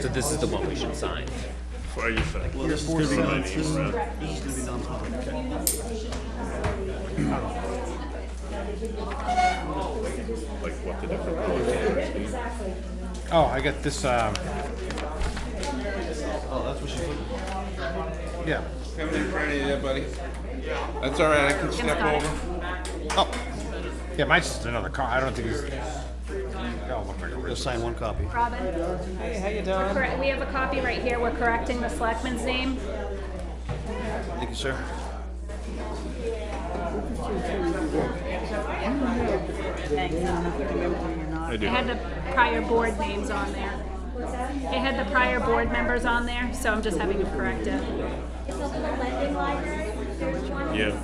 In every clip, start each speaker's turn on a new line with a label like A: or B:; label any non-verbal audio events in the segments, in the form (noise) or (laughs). A: So this is the one we should sign.
B: Why are you saying?
C: There's four sides. This is, this is gonna be done tomorrow.
B: Like what the different colors are?
D: Oh, I got this. Um,
C: Oh, that's what she's looking for.
D: yeah.
E: Coming in front of you there, buddy. That's all right, I can step over.
D: Oh. Yeah, mine's just another car. I don't think it's. That'll look like a
C: Just
D: wrist.
C: sign one copy.
F: Robin? Hey, how you doing? Correct, we have a copy right here, we're correcting the selectman's name.
C: Thank you, sir.
B: I
F: It
B: do.
F: had the prior board names on there. It had the prior board members on there, so I'm just having to correct it.
B: Yeah.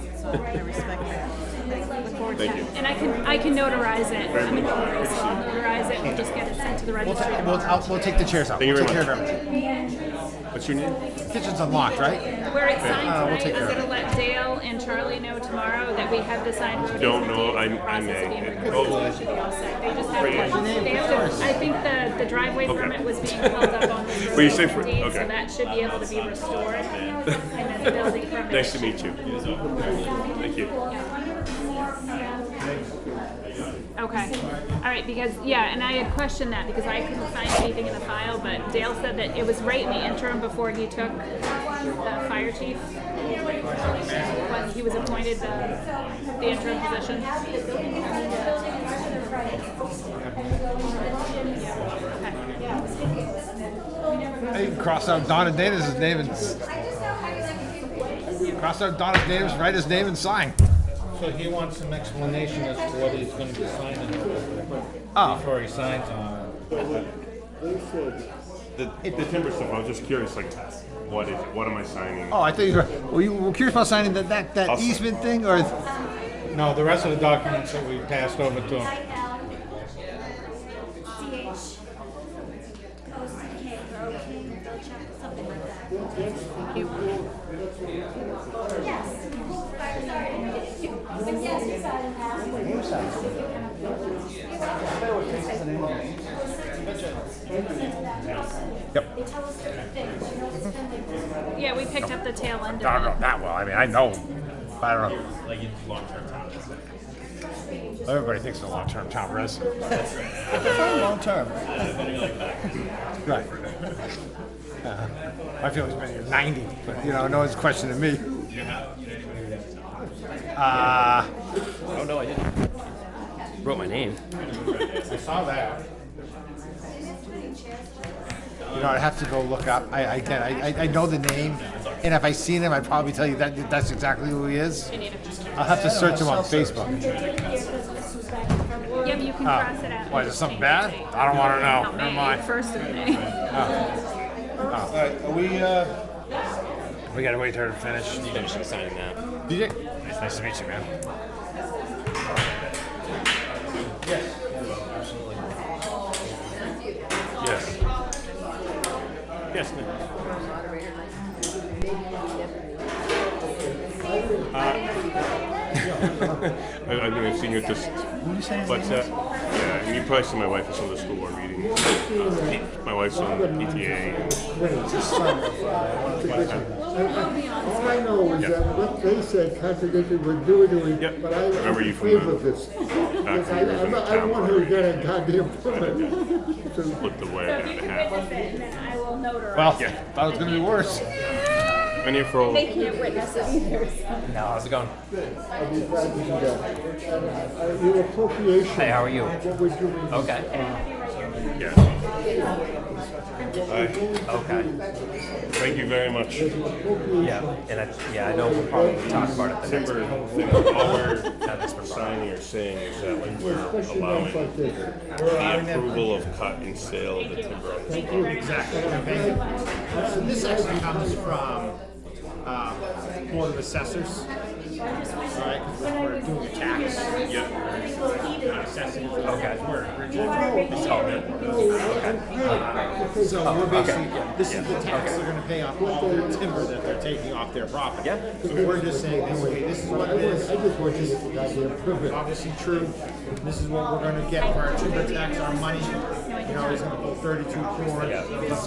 B: Thank you.
F: And I can, I can notarize it, I'm a notary, so I'll notarize it and just get it sent to the
D: We'll,
F: registry
D: ta- we'll,
F: tomorrow.
D: I'll, we'll take the chairs out.
B: Thank you
D: we'll
B: very
D: take care of everything.
B: What's your name?
D: Kitchen's unlocked, right?
F: Where it's signed
D: Uh, we'll
F: tonight,
D: take
F: I'm
D: care of
F: gonna let Dale and Charlie know tomorrow that we have the signed road.
B: Don't
F: agent
B: know,
F: date,
B: I-
F: the
B: I
F: process
B: may.
F: being
B: It-
F: recorded,
B: oh.
F: so it should be all set. They just
B: Right.
F: have, to- they have to, I think the, the driveway permit was being held up on this road.
B: Well, you say for-
F: deed,
B: okay.
F: So that should be able to be restored. And then the building permit.
B: Nice to meet you. Thank you.
F: Okay, all right, because, yeah, and I had questioned that because I couldn't find anything in the file, but Dale said that it was right in the interim before he took the fire chief. When he was appointed the, the interim position.
D: Hey, cross out Donna Davis' name and. s- Cross out Donna Davis, write his name and sign.
G: So he wants some explanation as to what he's gonna be signing
D: Oh.
G: before he signs on it.
B: The, the timber stuff, I was just curious, like, what is, it? what am I signing?
D: Oh, I thought you were. Were you were curious about signing that that, that
B: I'll-
D: easement thing or?
G: No, the rest of the documents that we passed over to him.
F: Yeah, we picked up the tail end
D: I don't
F: of it.
D: know oh, that well. I mean, I know. but I don't know. Everybody thinks they're long-term town resident.
G: (laughs)
D: long-term. (laughs) Right. Uh, My feeling's been here ninety, but you know, no one's questioning me. Uh,
A: Oh, no, I didn't. Wrote my name.
G: I saw that.
D: you know, I'd have to go look up. I, I can, I, I- I know the name, and if I seen him, I'd probably tell you that, that's exactly who he is.
F: You need a-
D: I'll have to search him on Facebook.
F: Yeah, but you can cross it out.
D: uh, Why, is it something bad? I don't wanna know.
F: Not
D: Oh, Never
F: May,
D: mind.
F: first of May.
E: All right, are we, uh,
D: We gotta wait for her to finish.
A: Finishing signing that.
D: DJ, it's nice to meet you, man.
B: Yes. Yes, ma'am. Uh, (laughs) I, I've never seen you at this, but, uh, yeah, and you probably see my wife at some of the school board meetings. Uh, My wife's on PTA and
H: All I know is that what they said contradicted what you were doing,
B: Yep.
H: but I
B: I remember
H: I'm
B: you
H: in
B: from
H: favor
B: the-
H: of this.
B: back
H: Because
B: when
H: I,
B: you were in
H: I'm
B: the
H: not- I don't
B: town
H: want her to
B: board,
H: get a goddamn permit. So-
B: looked away and
F: So if you
B: a
F: can
B: half.
F: witness it, and then I will notarize.
D: Well,
B: Yeah.
D: thought it was gonna be worse.
B: Been here for,
F: They can't witness it either.
A: How's it going?
H: I'll be glad to do that. Uh, Your appropriation.
A: Hey, how are you?
H: of What we're doing.
A: Okay.
B: yeah.
A: Okay.
B: Thank you very much.
A: Yeah. And I, yeah, I know we'll probably talk about it the next
B: Timber, thing, all we're signing or saying is that like we're
H: Especially
B: allowing
H: ones like this.
B: the approval of cut and sale of the timber. on this property.
G: So this actually comes from, uh, Board of Assessors. Alright, we're doing a tax. Not assessing, we're So we're basically, this is the tax they're gonna pay off all their timber that they're taking off their property. Yeah. So we're just saying, this, okay, this is what it is,
H: I just want this goddamn permit.
G: obviously true, this is what we're gonna get for our timber tax, our money.
D: you know, he's gonna pull thirty-two corn,